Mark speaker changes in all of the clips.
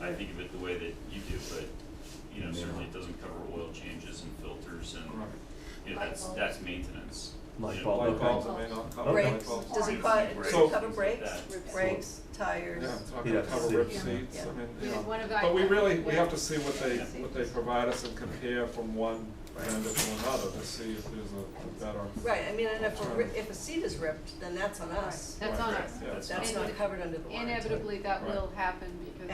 Speaker 1: I think of it the way that you do, but, you know, certainly it doesn't cover oil changes and filters and, you know, that's, that's maintenance.
Speaker 2: Light
Speaker 1: You know,
Speaker 2: bulb.
Speaker 3: Light
Speaker 2: Okay.
Speaker 3: bulbs, I may not cover light
Speaker 4: Brakes,
Speaker 3: bulbs.
Speaker 4: does it
Speaker 1: Brakes.
Speaker 4: cover, does
Speaker 1: So-
Speaker 4: it cover brakes,
Speaker 1: That.
Speaker 4: brakes, tires?
Speaker 3: Yeah, it's not
Speaker 2: You'd
Speaker 3: gonna
Speaker 2: have to
Speaker 3: cover
Speaker 2: see.
Speaker 3: rip
Speaker 2: Yeah,
Speaker 3: seats,
Speaker 4: yeah.
Speaker 3: I mean,
Speaker 5: We
Speaker 3: you
Speaker 5: had one
Speaker 3: know.
Speaker 5: of
Speaker 3: But we
Speaker 5: our-
Speaker 3: really, we
Speaker 5: yeah.
Speaker 3: have to see what they,
Speaker 4: Yeah.
Speaker 3: what they provide us and compare from one vendor to another to see if there's a better.
Speaker 4: Right, I mean, and if, a ri- if a seat is ripped, then that's on us.
Speaker 5: That's on
Speaker 3: Right,
Speaker 5: us.
Speaker 3: yeah.
Speaker 1: That's
Speaker 4: That's
Speaker 5: And
Speaker 4: not covered under the warranty.
Speaker 5: Inevitably, that
Speaker 3: Right.
Speaker 5: will happen because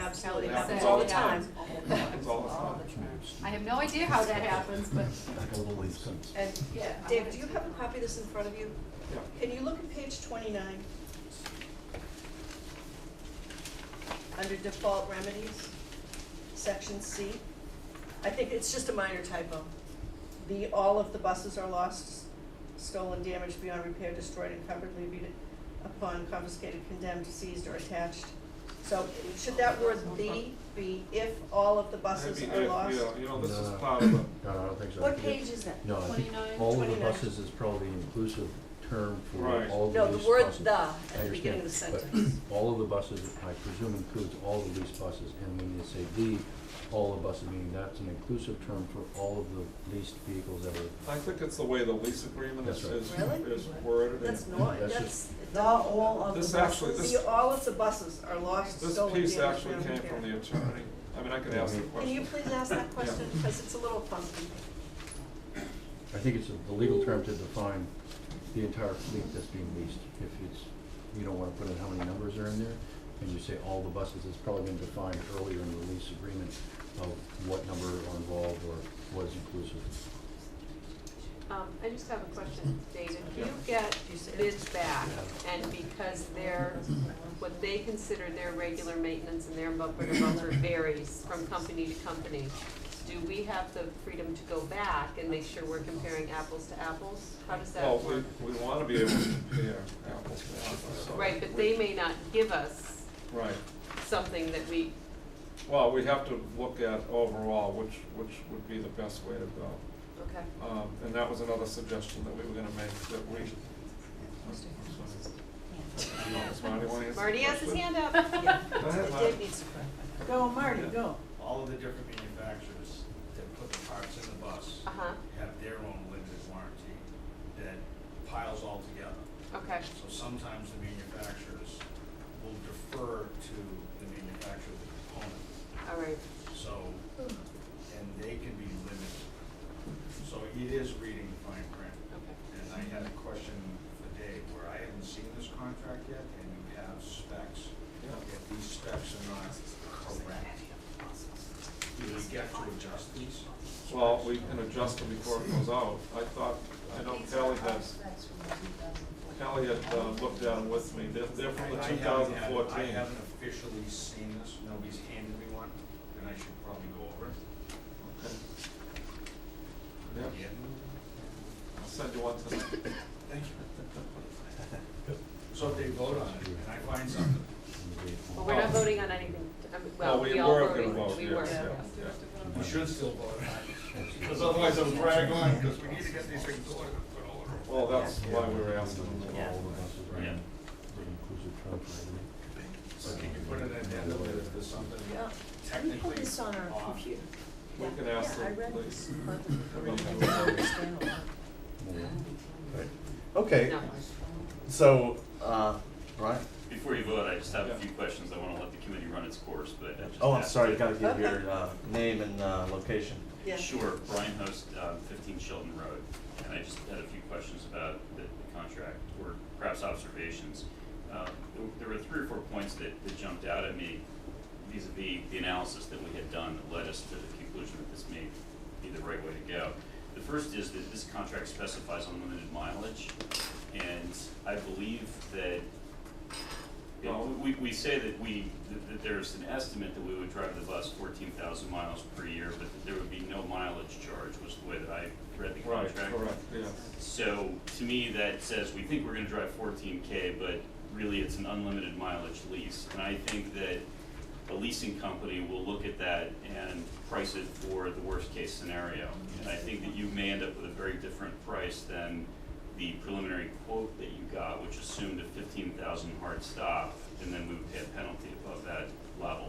Speaker 4: Absolutely,
Speaker 5: Kelly said.
Speaker 4: happens all the
Speaker 5: it
Speaker 4: time.
Speaker 5: happens all the time.
Speaker 3: Happens all the time.
Speaker 5: I have no idea how that happens, but
Speaker 2: Totally sense.
Speaker 4: And,
Speaker 5: Yeah.
Speaker 4: David, do you have a copy of this in front of you?
Speaker 3: Yeah.
Speaker 4: Can you look at page twenty-nine? Under default remedies, section C. I think it's just a minor typo. The, all of the buses are lost, stolen, damaged, beyond repair, destroyed, encumbered, levied upon confiscated, condemned, seized, or attached. So should that word the be if all of the buses
Speaker 3: Maybe
Speaker 4: are
Speaker 3: if,
Speaker 4: lost?
Speaker 3: Yeah, you know, this is
Speaker 2: No.
Speaker 3: part of the,
Speaker 2: No, I don't think so.
Speaker 4: What page is that?
Speaker 2: No, I think
Speaker 5: 29,
Speaker 2: all of the
Speaker 4: 29.
Speaker 2: buses is probably an inclusive term for
Speaker 3: Right.
Speaker 2: all the
Speaker 4: No, the
Speaker 2: leased
Speaker 4: word
Speaker 2: buses.
Speaker 4: the
Speaker 2: I
Speaker 4: at the
Speaker 2: understand,
Speaker 4: beginning of the
Speaker 2: but
Speaker 4: sentence.
Speaker 2: all of the buses, I presume includes all the leased buses, and when you say the, all the buses, meaning that's an inclusive term for all of the leased vehicles that are
Speaker 3: I think it's the way the lease agreement is,
Speaker 2: That's right.
Speaker 3: is
Speaker 4: Really?
Speaker 3: is worded.
Speaker 4: That's
Speaker 3: and
Speaker 4: not,
Speaker 2: That's
Speaker 4: that's.
Speaker 6: The all of the
Speaker 3: This actually,
Speaker 6: buses?
Speaker 3: this-
Speaker 4: See, all of the buses are lost,
Speaker 3: This
Speaker 4: stolen, damaged,
Speaker 3: piece actually
Speaker 4: or
Speaker 3: came from
Speaker 4: repaired.
Speaker 3: the attorney. I mean, I could ask the
Speaker 2: Mhm.
Speaker 4: Can you
Speaker 3: question.
Speaker 4: please ask that question,
Speaker 3: Yeah.
Speaker 4: because it's a little funky.
Speaker 2: I think it's the legal term to define the entire fleet that's being leased. If it's, you don't wanna put in how many numbers are in there, and you say all the buses, it's probably been defined earlier in the lease agreement of what number are involved or was inclusive.
Speaker 5: Um, I just have a question, David. If You
Speaker 3: Yeah.
Speaker 5: get bids back, and because their, what they consider their regular maintenance and their bumper to bumper varies from company to company, do we have the freedom to go back and make sure we're comparing apples to apples? How does that
Speaker 3: Well,
Speaker 5: work?
Speaker 3: we, we wanna be able to compare apples to apples, so.
Speaker 5: Right, but
Speaker 3: we-
Speaker 5: they may not give us
Speaker 3: Right.
Speaker 5: something that we,
Speaker 3: Well, we have to look at overall which, which would be the best way to go.
Speaker 5: okay.
Speaker 3: Um, and that was another suggestion that we were gonna make, that we. Marty, wanna answer the
Speaker 5: Marty has his
Speaker 3: question?
Speaker 5: hand up.
Speaker 3: Go ahead, Marty.
Speaker 4: Dave needs to correct.
Speaker 6: Go, Marty, go.
Speaker 7: all of the different manufacturers that put the parts in the bus
Speaker 5: Uh-huh,
Speaker 7: have their own limited warranty that piles all together.
Speaker 5: okay,
Speaker 7: So sometimes the manufacturers will defer to the manufacturer of the component,
Speaker 5: all right.
Speaker 7: so, and they can be limited. So it is reading the fine print.
Speaker 5: Okay.
Speaker 7: And I had a question for Dave, where I haven't seen this contract yet, and you have specs. If these specs are not correct, do we get to adjust these?
Speaker 3: Well, we can adjust them before it goes out. I thought, I know Kelly has, Kelly had uh, looked at them with me. They're, they're from the
Speaker 7: I
Speaker 3: two
Speaker 7: haven't
Speaker 3: thousand
Speaker 7: had- I
Speaker 3: fourteen.
Speaker 7: haven't officially seen this, nobody's handed me one, and I should probably go over it
Speaker 3: Yep,
Speaker 7: again.
Speaker 3: I'll send you one tonight.
Speaker 7: Thank you. So if they vote on it, and I find something,
Speaker 5: Well, we're not voting on anything, um, well,
Speaker 3: Oh. No, we
Speaker 5: we all
Speaker 3: were
Speaker 5: voted,
Speaker 3: gonna
Speaker 5: we were.
Speaker 3: vote, yes, yeah, yeah.
Speaker 7: we should still vote on it, because otherwise it'll drag on, because we need to get these things ordered, put order.
Speaker 3: Well, that's why we were asking them.
Speaker 2: All the
Speaker 4: Yeah.
Speaker 2: buses are in
Speaker 1: Yeah.
Speaker 2: the inclusive term for everything.
Speaker 7: So can you put an addendum that if there's something
Speaker 4: Yeah. Can you
Speaker 7: technically
Speaker 4: pull this on our
Speaker 7: off?
Speaker 4: computer?
Speaker 3: We can ask
Speaker 4: Yeah, I
Speaker 3: them,
Speaker 4: read
Speaker 3: please.
Speaker 4: this.
Speaker 3: I mean,
Speaker 4: I
Speaker 3: you
Speaker 4: didn't
Speaker 3: know,
Speaker 4: understand a lot.
Speaker 5: Oh.
Speaker 8: Okay,
Speaker 5: No,
Speaker 8: so, uh, right,
Speaker 1: Before you vote, I just have a
Speaker 3: Yeah.
Speaker 1: few questions, I wanna let the committee run its course, but I just.
Speaker 8: oh, I'm
Speaker 1: asked
Speaker 8: sorry, you
Speaker 1: it.
Speaker 8: gotta give
Speaker 4: Okay.
Speaker 8: your, uh, name and, uh, location.
Speaker 4: Yeah.
Speaker 1: Sure, Brian Host, um, fifteen Sheldon Road, and I just had a few questions about the, the contract, or perhaps observations. Uh, there were three or four points that, that jumped out at me vis-à-vis the analysis that we had done that led us to the conclusion that this may be the right way to go. The first is that this contract specifies unlimited mileage, and I believe that yeah,
Speaker 3: Well-
Speaker 1: we, we say that we, that- that there's an estimate that we would drive the bus fourteen thousand miles per year, but that there would be no mileage charge, was the way that I read the
Speaker 3: Right,
Speaker 1: contract.
Speaker 3: correct, yes.
Speaker 1: So, to me, that says, we think we're gonna drive fourteen K, but really, it's an unlimited mileage lease. And I think that a leasing company will look at that and price it for the worst-case scenario. And I think that you may end up with a very different price than the preliminary quote that you got, which assumed a fifteen thousand hard stop, and then we would pay a penalty above that level.